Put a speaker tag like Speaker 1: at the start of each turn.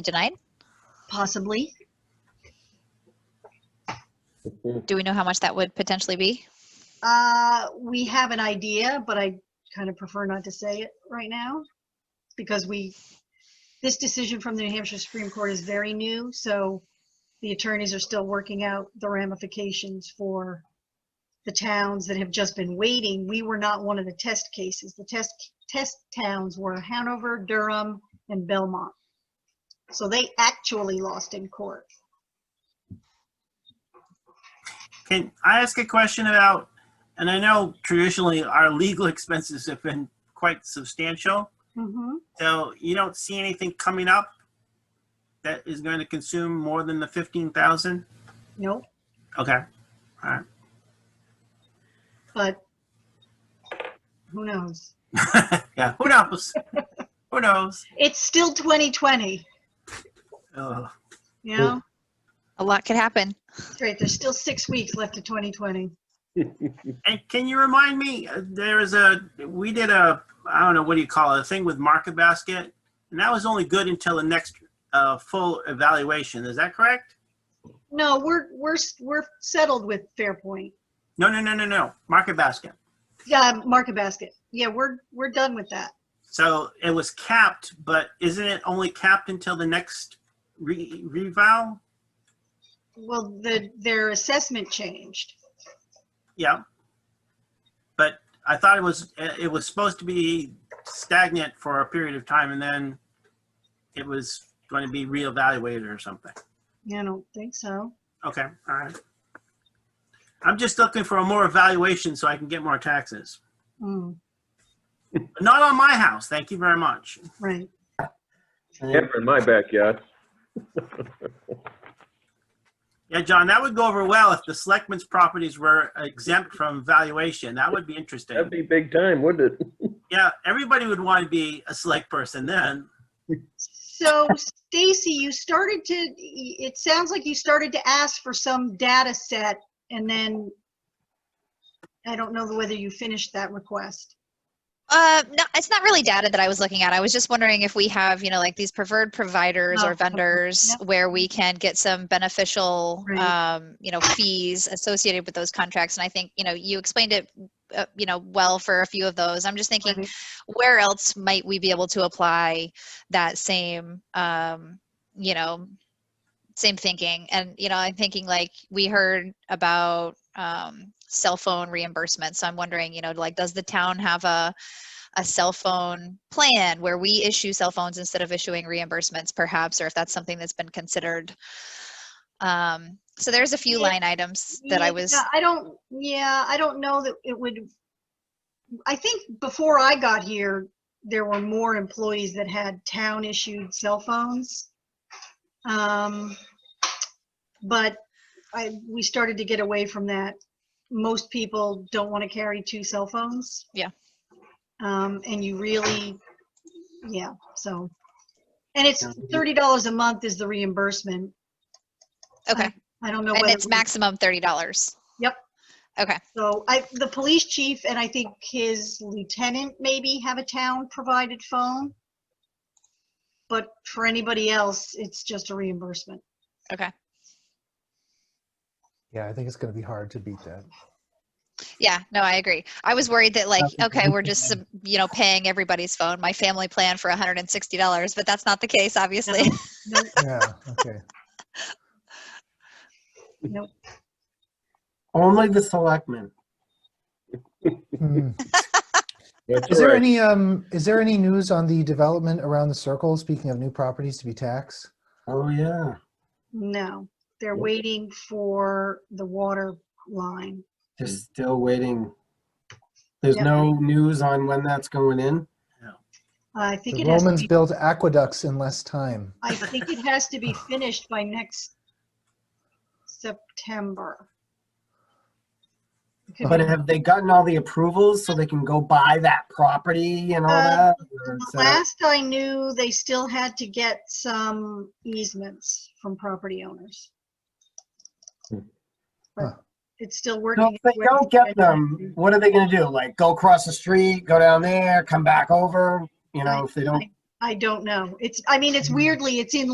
Speaker 1: denied?
Speaker 2: Possibly.
Speaker 1: Do we know how much that would potentially be?
Speaker 2: Uh, we have an idea, but I kind of prefer not to say it right now because we, this decision from the New Hampshire Supreme Court is very new, so the attorneys are still working out the ramifications for the towns that have just been waiting. We were not one of the test cases. The test, test towns were Hanover, Durham, and Belmont. So they actually lost in court.
Speaker 3: Can I ask a question about, and I know traditionally our legal expenses have been quite substantial.
Speaker 2: Mm-hmm.
Speaker 3: So you don't see anything coming up that is going to consume more than the fifteen thousand?
Speaker 2: Nope.
Speaker 3: Okay,
Speaker 2: but who knows?
Speaker 3: yeah, who knows? Who knows?
Speaker 2: It's still 2020,
Speaker 3: Ugh.
Speaker 2: you know?
Speaker 1: A lot could happen.
Speaker 2: Great, there's still six weeks left of 2020.
Speaker 3: And can you remind me, uh, there is a, we did a, I don't know, what do you call it, a thing with Market Basket? And that was only good until the next uh, full evaluation, is that correct?
Speaker 2: No, we're, we're, we're settled with Fairpoint.
Speaker 3: No, no, no, no, no, Market Basket.
Speaker 2: Yeah, Market Basket. Yeah, we're, we're done with that.
Speaker 3: So it was capped, but isn't it only capped until the next re- revow?
Speaker 2: Well, the, their assessment changed.
Speaker 3: Yeah. But I thought it was, it was supposed to be stagnant for a period of time and then it was going to be reevaluated or something.
Speaker 2: I don't think so.
Speaker 3: Okay, all right. I'm just looking for a more evaluation so I can get more taxes.
Speaker 2: Mm,
Speaker 3: But not on my house, thank you very much.
Speaker 2: right.
Speaker 4: Never in my backyard.
Speaker 3: Yeah, John, that would go over well if the selectmen's properties were exempt from valuation. That would be interesting.
Speaker 4: That'd be big time, wouldn't it?
Speaker 3: Yeah, everybody would want to be a select person then.
Speaker 2: So Stacy, you started to, it sounds like you started to ask for some data set and then I don't know whether you finished that request.
Speaker 1: Uh, no, it's not really data that I was looking at. I was just wondering if we have, you know, like these preferred providers
Speaker 2: Oh,
Speaker 1: or
Speaker 2: okay.
Speaker 1: vendors
Speaker 2: Yep.
Speaker 1: where we can get some beneficial,
Speaker 2: Right.
Speaker 1: um, you know, fees associated with those contracts. And I think, you know, you explained it, uh, you know, well for a few of those. I'm just thinking, where else might we be able to apply that same um you know same thinking and you know i'm thinking like we heard about um cell phone reimbursement so i'm wondering you know like does the town have a a cell phone plan where we issue cell phones instead of issuing reimbursements perhaps or if that's something that's been considered um so there's a few
Speaker 2: Yeah.
Speaker 1: line items that i
Speaker 2: Yeah,
Speaker 1: was
Speaker 2: I don't, yeah, I don't know that it would, I think before I got here, there were more employees that had town issued cell phones. Um, But I, we started to get away from that. Most people don't want to carry two cell phones.
Speaker 1: Yeah.
Speaker 2: Um, and you really, yeah, so. And it's thirty dollars a month is the reimbursement.
Speaker 1: okay
Speaker 2: I don't know.
Speaker 1: and
Speaker 2: whether
Speaker 1: it's
Speaker 2: we-
Speaker 1: maximum $30
Speaker 2: Yep.
Speaker 1: okay
Speaker 2: So I, the police chief and I think his lieutenant maybe have a town provided phone. But for anybody else, it's just a reimbursement.
Speaker 1: okay
Speaker 5: Yeah, I think it's going to be hard to beat that.
Speaker 1: Yeah, no, I agree. I was worried that like,
Speaker 5: Okay.
Speaker 1: okay, we're just, sub- you know, paying everybody's phone, my family plan for $160, but that's not the case, obviously.
Speaker 5: Yeah, okay.
Speaker 6: Only the selectmen.
Speaker 5: Hmm.
Speaker 4: That's
Speaker 5: Is there
Speaker 4: right.
Speaker 5: any, um, is there any news on the development around the circle, speaking of new properties to be taxed?
Speaker 6: Oh, yeah.
Speaker 2: No, they're
Speaker 4: Yep.
Speaker 2: waiting for the water line.
Speaker 6: They're still waiting. There's
Speaker 2: Yeah.
Speaker 6: no news on when that's going in.
Speaker 2: I think
Speaker 5: The
Speaker 2: it has, to
Speaker 5: Romans
Speaker 2: be-
Speaker 5: built aqueducts in less time.
Speaker 2: I think it has to be finished by next September. It could
Speaker 6: But
Speaker 2: be-
Speaker 6: have they gotten all the approvals so they can go buy that property and all
Speaker 2: Uh,
Speaker 6: that? Or is that-
Speaker 2: Last I knew, they still had to get some easements from property owners.
Speaker 4: Hmm.
Speaker 2: But
Speaker 5: Huh.
Speaker 2: It's still
Speaker 6: So
Speaker 2: working.
Speaker 6: If they don't get them, what are they gonna do? Like, go across the street, go down there, come back over? You know, if they don't Hmm.
Speaker 2: I don't know. It's, I mean, it's weirdly, it's in